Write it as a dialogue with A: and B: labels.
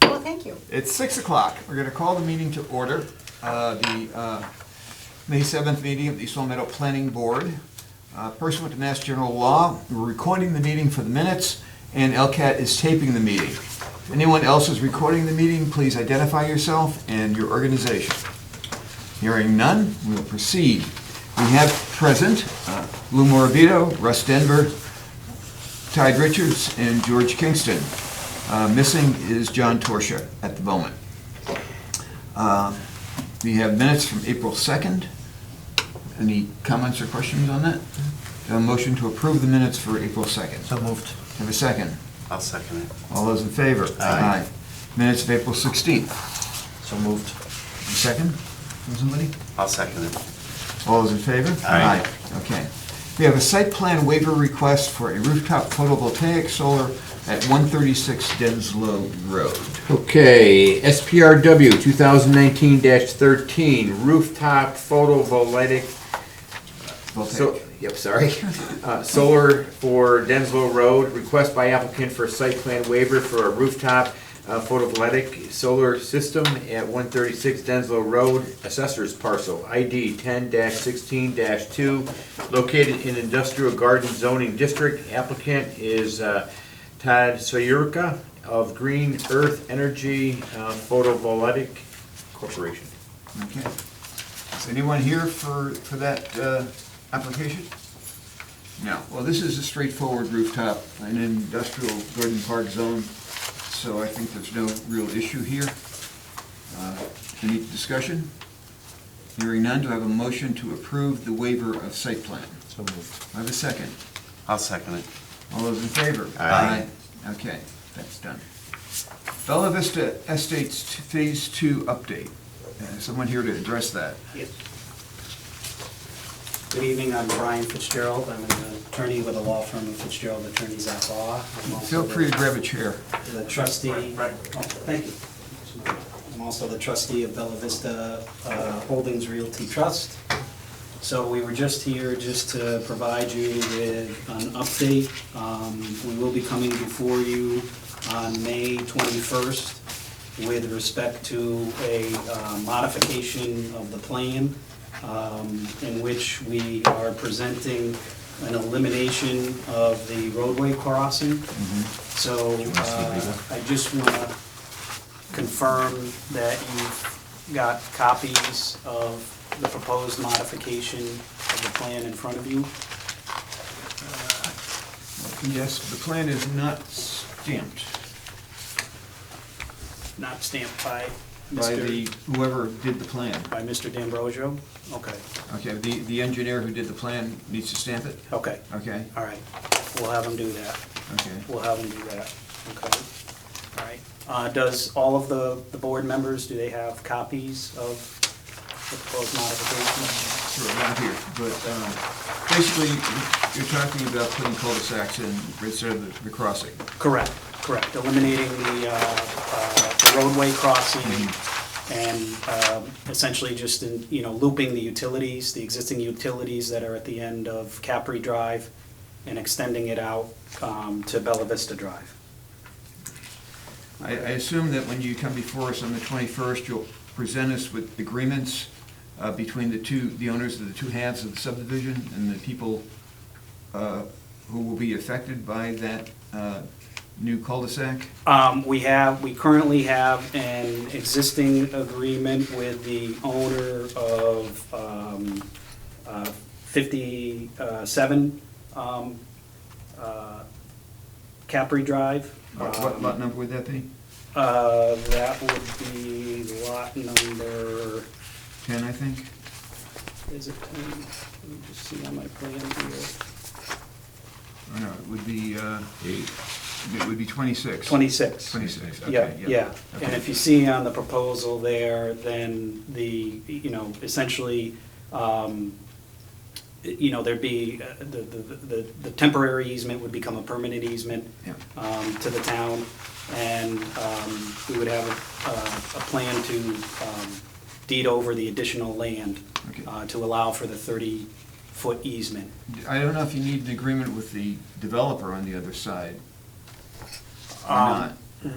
A: Thank you.
B: It's six o'clock. We're going to call the meeting to order. Uh, The uh, May 7th meeting of the East Long Meadow Planning Board. Uh, Pursuant to Mass General Law, we're recording the meeting for the minutes, and LCAT is taping the meeting. If Anyone else is recording the meeting, please identify yourself and your organization. Hearing none, we'll proceed. We have present uh, Lou Morabito, Russ Denver, Tide Richards, and George Kingston. Uh, Missing is John Torsia at the moment. Uh, We have minutes from April 2nd. Any comments or questions on that? A motion to approve the minutes for April 2nd.
C: So moved.
B: Have a second.
C: I'll second it.
B: All those in favor?
C: Aye.
B: Minutes of April 16th.
C: So moved.
B: Second from somebody?
C: I'll second it.
B: All those in favor?
C: Aye.
B: Okay. We have a site plan waiver request for a rooftop photovoltaic solar at 136 Denslow Road.
D: Okay, SPRW 2019-13 rooftop photovoltaic, so,
B: Voltaic.
D: yep, sorry. Uh, Solar for Denslow Road, request by applicant for site plan waiver for a rooftop uh, photovoltaic solar system at 136 Denslow Road, assessors parcel ID 10-16-2, located in industrial garden zoning district. Applicant is uh, Todd Sayurka of Green Earth Energy uh, Photovoltaic Corporation.
B: Okay. Is anyone here for, for that uh, application? No. Well, this is a straightforward rooftop, an industrial garden park zone, so I think there's no real issue here. Uh, Any discussion? Hearing none, do I have a motion to approve the waiver of site plan?
C: So moved.
B: I have a second.
C: I'll second it.
B: All those in favor?
C: Aye.
B: Aye. Okay, that's done. Bella Vista Estates t- Phase Two update. Uh, is Someone here to address that?
E: Good evening, I'm Brian Fitzgerald, I'm an attorney with a law firm of Fitzgerald Attorneys at Law. I'm also
B: Feel free to
E: the-
B: grab a chair.
E: The trustee. Oh, Thank you. I'm also the trustee of Bella Vista uh, Holdings Realty Trust. So we were just here just to provide you with an update. Um, We will be coming before you on May 21st with respect to a uh, modification of the plan um, in which we are presenting an elimination of the roadway crossing. So uh, I just want to confirm that you've got copies of the proposed modification of the plan in front of you.
B: Yes, the plan is not stamped
E: Not stamped by
B: by the,
E: Mr.
B: whoever did the plan.
E: By Mr. D'Ambrosio? Okay,
B: Okay, the, the engineer who did the plan needs to stamp it?
E: okay,
B: Okay,
E: all right. We'll have him do that.
B: okay.
E: We'll have him do that. Okay, all right. Uh, Does all of the, the board members, do they have copies of the proposed modification?
B: Sure, not here, but uh, basically, you're talking about putting cul-de-sacs in instead of the- the crossing.
E: Correct, correct, eliminating the uh, uh, the roadway crossing and uh, essentially just, in you know, looping the utilities, the existing utilities that are at the end of Capri Drive and extending it out um, to Bella Vista Drive.
B: I, I assume that when you come before us on the 21st, you'll present us with agreements uh, between the two, the owners of the two halves of the subdivision and the people uh, who will be affected by that uh, new cul-de-sac?
E: Um, We have, we currently have an existing agreement with the owner of um, uh, 57 um, uh, Capri Drive. Um,
B: What what lot number would that be?
E: Uh, That would be lot number,
B: 10, I think?
E: is it 10? Let me just see on my plan here.
B: Or no, it would be, uh, it would be 26.
E: 26.
B: 26, okay,
E: Yeah,
B: yeah.
E: yeah. And
B: Okay.
E: if you see on the proposal there, then the, you know, essentially, um, you know, there'd be, uh, the, the, the- the temporary easement would become a permanent easement
B: Yeah.
E: um, to the town, and um, we would have a, a- a plan to um, deed over the additional land
B: Okay.
E: uh, to allow for the 30-foot easement.
B: I don't know if you need an agreement with the developer on the other side or
E: Um,
B: not.